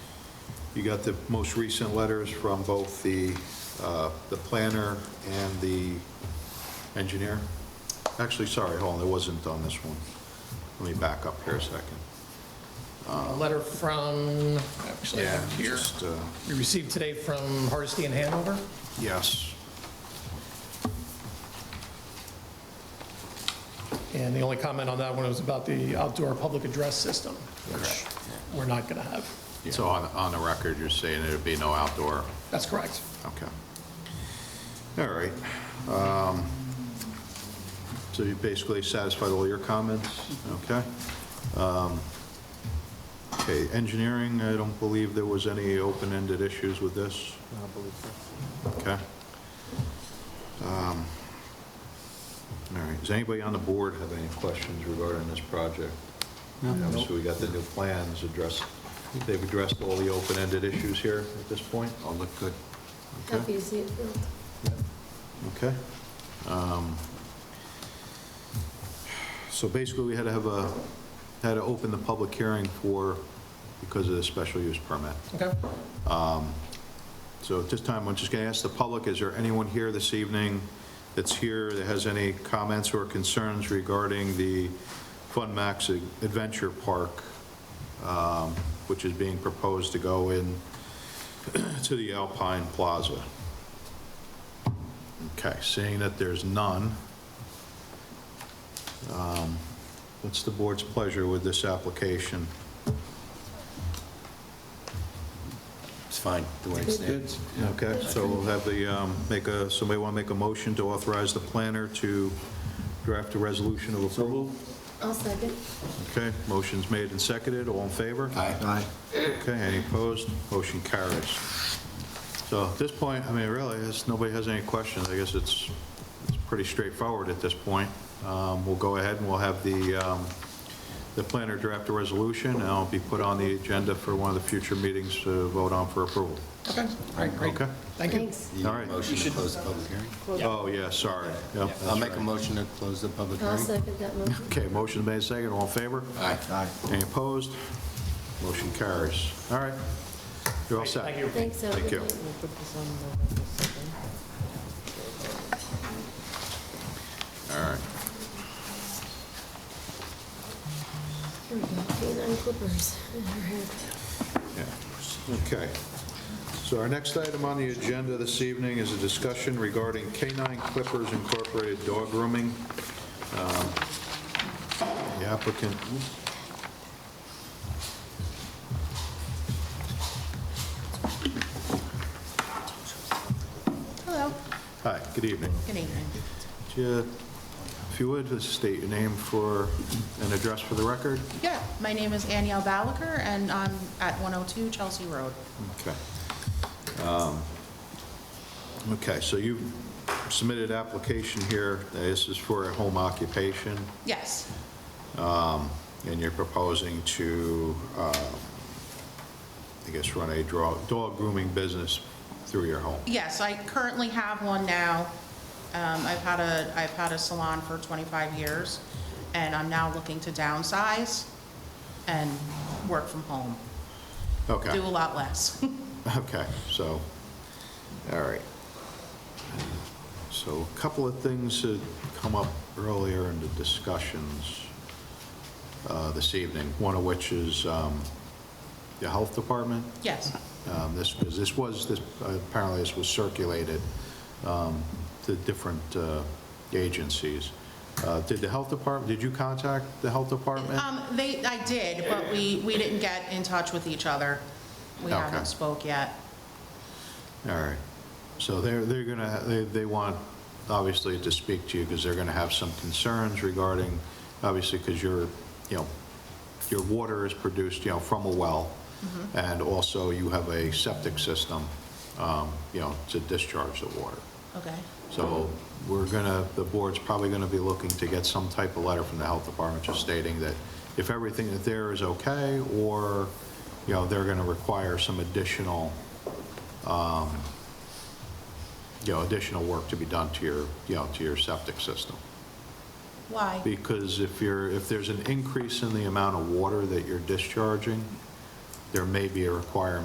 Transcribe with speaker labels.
Speaker 1: You got the most recent letters from both the, uh, the planner and the engineer? Actually, sorry, hold on, it wasn't on this one. Let me back up here a second.
Speaker 2: A letter from, actually, I have it here,
Speaker 1: Just, uh,
Speaker 2: we received today from Hardesty in Hanover.
Speaker 1: Yes,
Speaker 2: And the only comment on that one was about the outdoor public address system, which we're not going to have.
Speaker 1: so on, on the record, you're saying there'd be no outdoor
Speaker 2: That's correct.
Speaker 1: Okay. All right. Um, So you basically satisfied all your comments? Okay. Um, Okay, engineering, I don't believe there was any open-ended issues with this? I believe so. Okay. Um, All right, does anybody on the board have any questions regarding this project? Obviously, we got the new plans addressed. They've addressed all the open-ended issues here at this point? All look good. Okay.
Speaker 3: Happy to see it built.
Speaker 1: Okay. Um, So basically, we had to have a, had to open the public hearing for, because of the special use permit.
Speaker 2: Okay?
Speaker 1: So at this time, I'm just going to ask the public, is there anyone here this evening that's here that has any comments or concerns regarding the Fun Max Adventure Park, um, which is being proposed to go in to the Alpine Plaza? Okay, seeing that there's none, um, what's the board's pleasure with this application?
Speaker 4: It's fine, the way it's there.
Speaker 1: Okay, so we'll have the, um, make a, somebody want to make a motion to authorize the planner to draft a resolution of approval?
Speaker 3: I'll second.
Speaker 1: Okay, motion's made and seconded, all in favor?
Speaker 4: Aye.
Speaker 1: Okay, any opposed? Motion carries. So at this point, I mean, really, it's- nobody has any questions. I guess it's, it's pretty straightforward at this point. Um, We'll go ahead and we'll have the, um, the planner draft a resolution, and it'll be put on the agenda for one of the future meetings to vote on for approval.
Speaker 2: Okay, all right, great.
Speaker 1: Okay?
Speaker 2: Thank you.
Speaker 3: Thanks.
Speaker 4: You
Speaker 1: All
Speaker 4: need
Speaker 1: right.
Speaker 4: a motion to close the public hearing?
Speaker 1: Oh, yeah, sorry. Yep,
Speaker 4: Yeah, I'll
Speaker 1: that's
Speaker 4: make a
Speaker 1: right.
Speaker 4: motion to close the public
Speaker 3: I'll
Speaker 4: hearing.
Speaker 3: second that motion.
Speaker 1: Okay, motion made, second, all in favor?
Speaker 4: Aye. Aye.
Speaker 1: Any opposed? Motion carries. All right, you're all set.
Speaker 2: Thank you.
Speaker 3: Thanks,
Speaker 1: Thank you.
Speaker 3: everyone.
Speaker 1: All right.
Speaker 3: Here we go. Canine clippers.
Speaker 1: Yeah. Okay. So our next item on the agenda this evening is a discussion regarding Canine Clippers Incorporated dog grooming. Um, The applicant,
Speaker 5: Hello.
Speaker 1: hi, good evening.
Speaker 5: Good evening.
Speaker 1: Ju- If you would, just state your name for, an address for the record.
Speaker 5: Yeah, my name is Aniel Balaker, and I'm at 102 Chelsea Road.
Speaker 1: Okay. Um, Okay, so you submitted an application here, this is for a home occupation,
Speaker 5: Yes,
Speaker 1: and you're proposing to, um, I guess, run a draw- dog grooming business through your home.
Speaker 5: yes, I currently have one now. Um, I've had a, I've had a salon for 25 years, and I'm now looking to downsize and work from home,
Speaker 1: Okay,
Speaker 5: do a lot less.
Speaker 1: okay, so, all right. So a couple of things that come up earlier in the discussions uh, this evening, one of which is um, the health department.
Speaker 5: Yes,
Speaker 1: um, This, because this was, this, apparently this was circulated um, to different uh, agencies. Uh, Did the health department, did you contact the health department?
Speaker 5: um, they, I did, but we, we didn't get in touch with each other. We
Speaker 1: Okay.
Speaker 5: haven't spoke yet.
Speaker 1: All right. So they're, they're gonna, they, they want, obviously, to speak to you because they're gonna have some concerns regarding, obviously, because your, you know, your water is produced, you know, from a well, and also you have a septic system, um, you know, to discharge the water.
Speaker 5: Okay,
Speaker 1: So we're gonna, the board's probably gonna be looking to get some type of letter from the health department just stating that if everything that there is okay, or, you know, they're gonna require some additional, um, you know, additional work to be done to your, you know, to your septic system.
Speaker 5: why?
Speaker 1: Because if you're, if there's an increase in the amount of water that you're discharging, there may be a requirement